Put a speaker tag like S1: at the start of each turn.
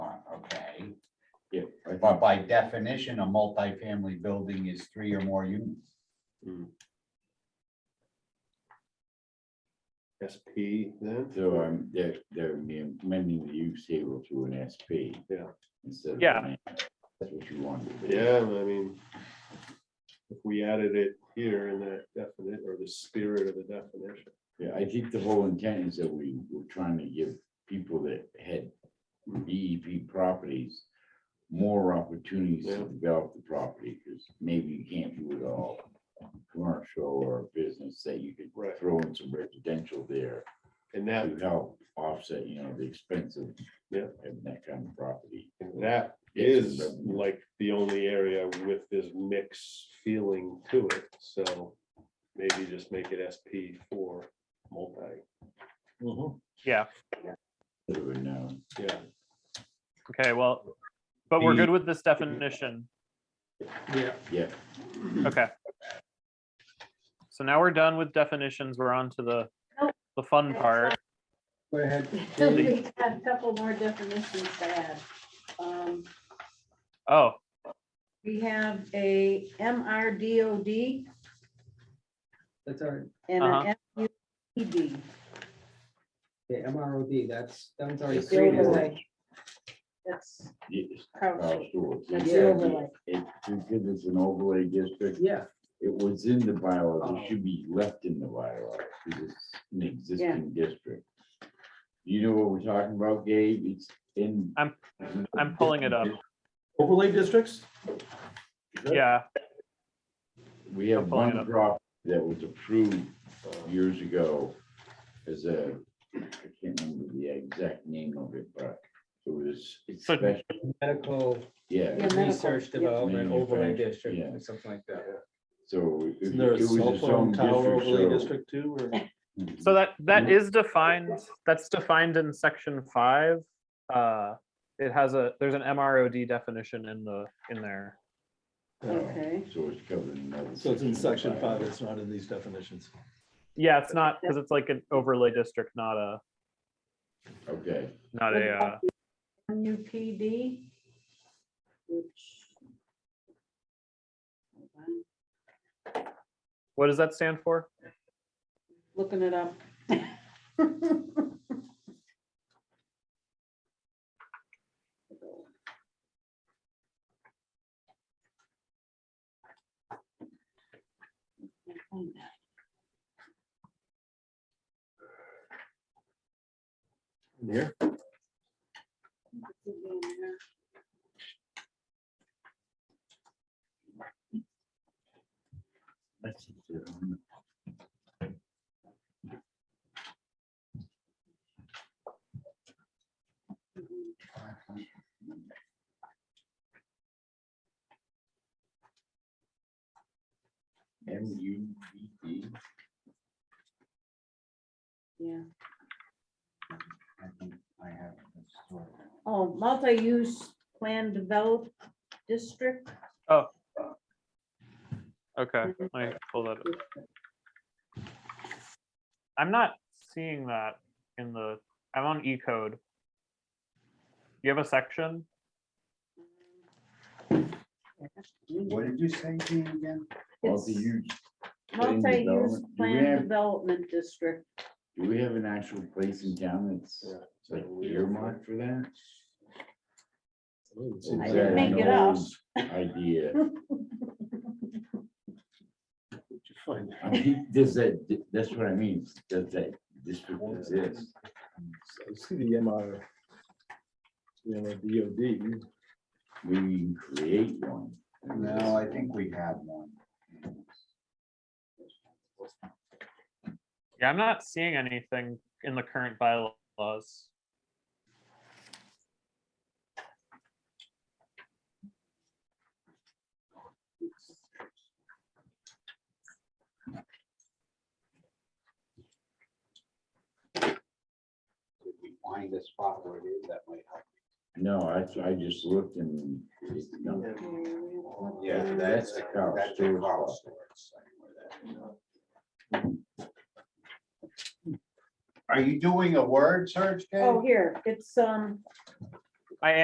S1: but by definition, a multifamily building is three or more units.
S2: SP then?
S3: So um, there, there may be many use table to an SP.
S2: Yeah.
S3: Instead. of
S4: Yeah.
S3: an- That's what you want. to do.
S2: Yeah, I mean, if we added it here in that definite, or the spirit of the definition.
S3: Yeah, I think the whole intent is that we were trying to give people that had DEP properties more opportunities to
S2: Yeah.
S3: develop the property, because maybe you can't do it all commercial or business, that you could
S2: Right.
S3: throw in some residential there
S2: And that,
S5: Mm-hmm.
S3: to help offset, you know, the expense of
S2: Yeah.
S3: having that kind of property.
S2: and that
S3: Get some
S2: is
S3: revenue.
S2: like the only area with this mix feeling to it, so maybe just make it SP for multi,
S5: Mm-hmm.
S3: So, and, uh,
S2: yeah.
S4: Okay, well, but we're
S3: The-
S4: good with this definition.
S6: Yeah,
S3: Yeah,
S4: Okay. So now we're done with definitions. We're on to the,
S7: Nope.
S4: the fun
S7: That's
S4: part.
S6: go ahead. Jamie.
S7: We have a couple more definitions to add. Um,
S4: Oh,
S7: We have a MRDOD
S6: That's all right.
S7: and
S4: Uh-huh.
S7: an FUED.
S6: Okay, MROD, that's, that's already.
S3: It's
S7: The
S3: Three
S7: overlay. That's
S3: yes,
S7: covered.
S3: Carl Stewart.
S7: That's
S6: the
S7: overlay.
S3: It, because it's an overlay district,
S6: Yeah,
S3: It was in the bylaw,
S6: Oh.
S3: it should be left in the bylaw, because it's an existing district. You know what we're talking about, Gabe? It's in.
S4: I'm- I'm pulling it up.
S5: Overlay districts?
S4: yeah,
S3: We have
S4: I'm pulling it
S3: one
S4: up.
S3: drop that was approved uh, years ago as a, I can't remember the exact name of it, but it was. it's
S4: So-
S3: special,
S6: medical
S3: Yeah,
S7: Yeah, medical,
S6: research
S7: yeah.
S6: development overlay
S3: Manufacturing,
S6: district,
S3: yeah.
S6: or something like that.
S3: so. it-
S5: Isn't there
S3: it
S5: a
S3: was
S5: cell
S3: its own Mm-hmm.
S5: phone tower
S3: district,
S5: overlay
S3: so-
S5: district too, or?
S4: so that, that is defined, that's defined in section five. Uh, It has a, there's an MROD definition in the, in there.
S7: Okay.
S3: Uh, So it's covered in another.
S5: So it's in
S3: section
S5: section
S3: of the
S5: five,
S3: bylaw.
S5: it's not in these definitions.
S4: Yeah, it's not, because it's like an overlay district, not a,
S3: Okay.
S4: not a, uh,
S7: MUPD, which. hold on,
S4: what does that stand for?
S7: Looking it up.
S5: Here.
S3: That's it, um, M U B
S1: E?
S3: D.
S7: Yeah.
S1: I think I have this story.
S7: Oh, multi-use plan developed district.
S4: Okay,
S7: Mhm.
S4: let me pull that up. I'm not seeing that in the, I'm on E code. You have a section?
S1: What did you say, Jean, again?
S3: Multi-use. plan
S7: Multi-use
S3: development. Do we
S7: plan
S3: have-
S7: development district.
S3: Do we have an actual place in town that's
S2: Yeah.
S3: like earmarked for that?
S7: I
S3: Is
S7: didn't
S3: that
S7: make
S3: an
S7: it up.
S3: old Idea.
S2: Find
S3: I mean, does that, that's what I mean. Does that district exist?
S5: I see the MR. You know, DOD,
S3: We can create one.
S1: No, I think we have one.
S4: Yeah, I'm not seeing anything in the current bylaws.
S1: Did we find a spot where it is that might help?
S3: No, I, I just looked and. it's not-
S1: Yeah,
S3: that's the Carl
S1: That's the
S3: Stewart
S1: Carl
S3: spot.
S1: Stewart site where that- Are you doing a word search, Dave?
S7: Oh, here, it's, um,